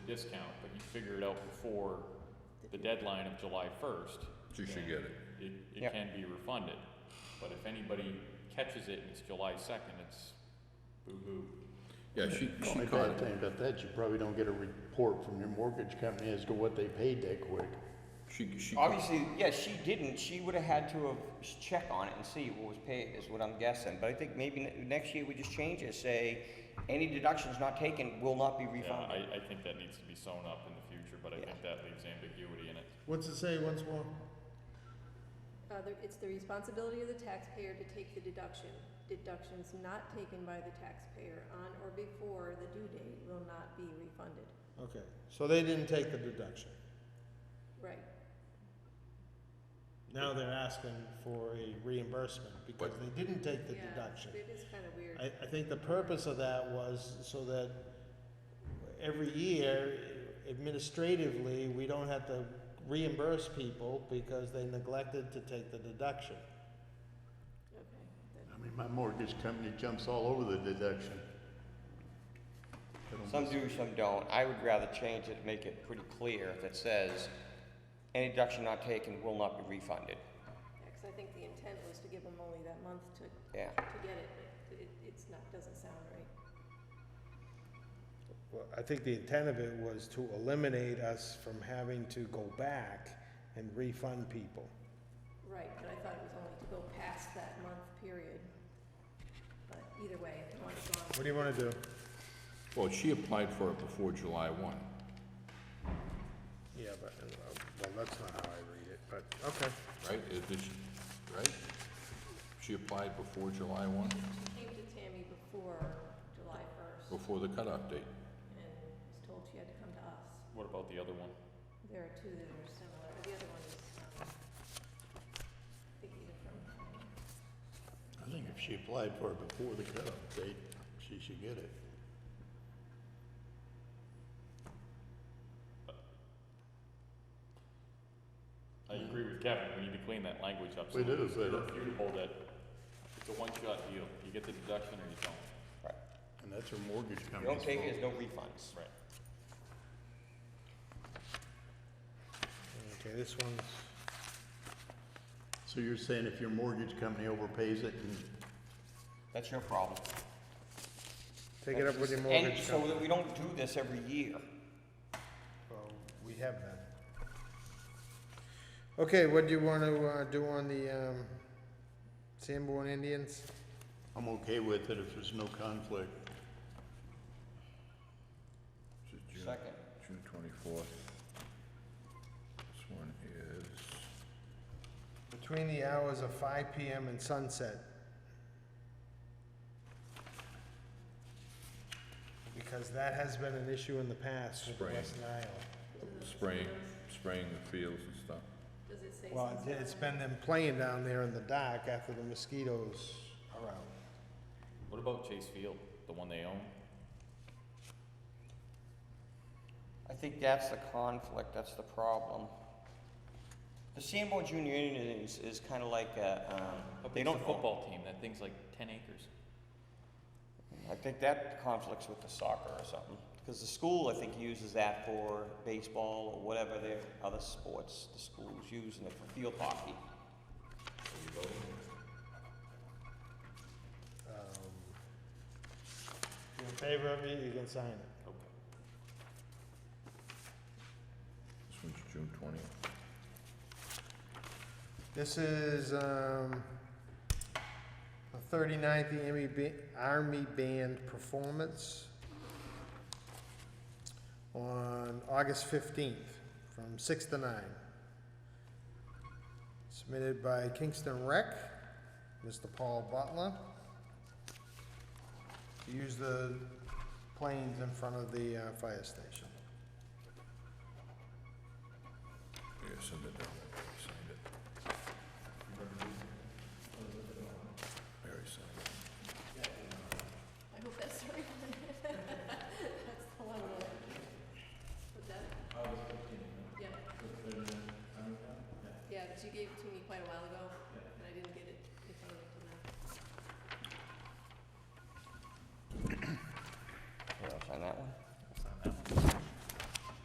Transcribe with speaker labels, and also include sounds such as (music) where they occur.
Speaker 1: discount, but you figure it out before the deadline of July first,
Speaker 2: She should get it.
Speaker 1: it, it
Speaker 3: Yep.
Speaker 1: can be refunded. But if anybody catches it and it's July second, it's boo-hoo.
Speaker 2: Yeah, she, she
Speaker 4: Only
Speaker 2: caught
Speaker 4: bad
Speaker 2: it.
Speaker 4: thing about that, you probably don't get a report from your mortgage company as to what they paid that quick.
Speaker 2: She, she, caught-
Speaker 3: Obviously, yeah, she didn't. She would have had to have s- check on it and see what was paid, is what I'm guessing. But I think maybe ne- next year we just change it, say, any deductions not taken will not be
Speaker 1: Yeah,
Speaker 3: refunded.
Speaker 1: I, I think that needs to be sewn up in the future, but I
Speaker 3: Yeah.
Speaker 1: think that leaves ambiguity in it.
Speaker 5: What's it say once more?
Speaker 6: Uh, the- it's the responsibility of the taxpayer to take the deduction. Deductions not taken by the taxpayer on or before the due date will not be refunded.
Speaker 5: Okay, so they didn't take the deduction.
Speaker 6: Right.
Speaker 5: Now they're asking for a reimbursement because they didn't take the
Speaker 6: Yeah,
Speaker 5: deduction.
Speaker 6: It is kind of weird.
Speaker 5: I, I think the purpose of that was so that every year administratively, we don't have to reimburse people because they neglected to take the deduction.
Speaker 6: Okay. that-
Speaker 4: I mean, my mortgage company jumps all over the deduction.
Speaker 3: Some do, some don't. I would rather change it, make it pretty clear that says, any deduction not taken will not be refunded.
Speaker 6: yeah, 'cause I think the intent was to give them only that month to, to
Speaker 3: Yeah.
Speaker 6: get it, but it, it's not, doesn't sound right.
Speaker 5: Well, I think the intent of it was to eliminate us from having to go back and refund people.
Speaker 6: Right, but I thought it was only to go past that month period. But either way, I want it gone.
Speaker 5: What do you wanna do?
Speaker 2: well, she applied for it before July one.
Speaker 5: Yeah, but, uh, well, that's not how I read it, but, okay.
Speaker 2: Right, is this, right? She applied before July one,
Speaker 6: She came to Tammy before July first
Speaker 2: before the cutoff date.
Speaker 6: and was told she had to come to us.
Speaker 1: What about the other one?
Speaker 6: There are two that are similar, the other one is, um, I think either from,
Speaker 4: I think if she applied for it before the cutoff date, she should get it.
Speaker 1: I
Speaker 3: Mm.
Speaker 1: agree with Kevin, we need to clean that language up. so
Speaker 4: We do, but-
Speaker 1: Irrefutable that it's a one-shot deal, you get the deduction or you don't.
Speaker 3: Right.
Speaker 4: And that's her mortgage
Speaker 3: If you
Speaker 4: company's
Speaker 3: don't take
Speaker 4: fault.
Speaker 3: it, there's no refunds.
Speaker 1: Right.
Speaker 5: Okay, this one's.
Speaker 4: So you're saying if your mortgage company overpays it and
Speaker 3: That's your problem.
Speaker 5: Take it up with your
Speaker 3: And
Speaker 5: mortgage
Speaker 3: so
Speaker 5: company.
Speaker 3: that we don't do this every year.
Speaker 5: Well, We have that. Okay, what do you wanna, uh, do on the, um, Sanborn Indians?
Speaker 4: I'm okay with it if there's no conflict.
Speaker 2: This is June-
Speaker 3: Second.
Speaker 2: June twenty-fourth. This one is,
Speaker 5: Between the hours of five PM and sunset. Because that has been an issue in the past with
Speaker 2: Spring.
Speaker 5: West Nile.
Speaker 2: spraying, spraying the fields and stuff.
Speaker 6: does it say
Speaker 5: Well,
Speaker 6: something?
Speaker 5: it- it's been them playing down there in the dock after the mosquitoes are out.
Speaker 1: What about Chase Field, the one they own?
Speaker 3: I think that's the conflict, that's the problem. The Sanborn Junior Indians is kind of like a, um,
Speaker 1: How
Speaker 3: they
Speaker 1: big's the
Speaker 3: don't football.
Speaker 1: Football team, that thing's like ten acres.
Speaker 3: I think that conflicts with the soccer or something, because the school, I think, uses that for baseball or whatever their other sports, the school's using it for field hockey.
Speaker 5: Um, If you're in favor of it, you can sign it.
Speaker 1: Okay.
Speaker 2: This one's June twentieth.
Speaker 5: This is um, the E 39th Army, ba- Army Band performance on August 15th from 6 to 9. Submitted by Kingston Rec, Mr. Paul Butler. To use the planes in front of the uh, fire station.
Speaker 2: Yeah, send it down, there. Barry signed it. Barry signed it.
Speaker 6: I hope that's the right one. (laughs) That's the one that, was that? Yeah. Yeah, but you gave it to me quite a while ago,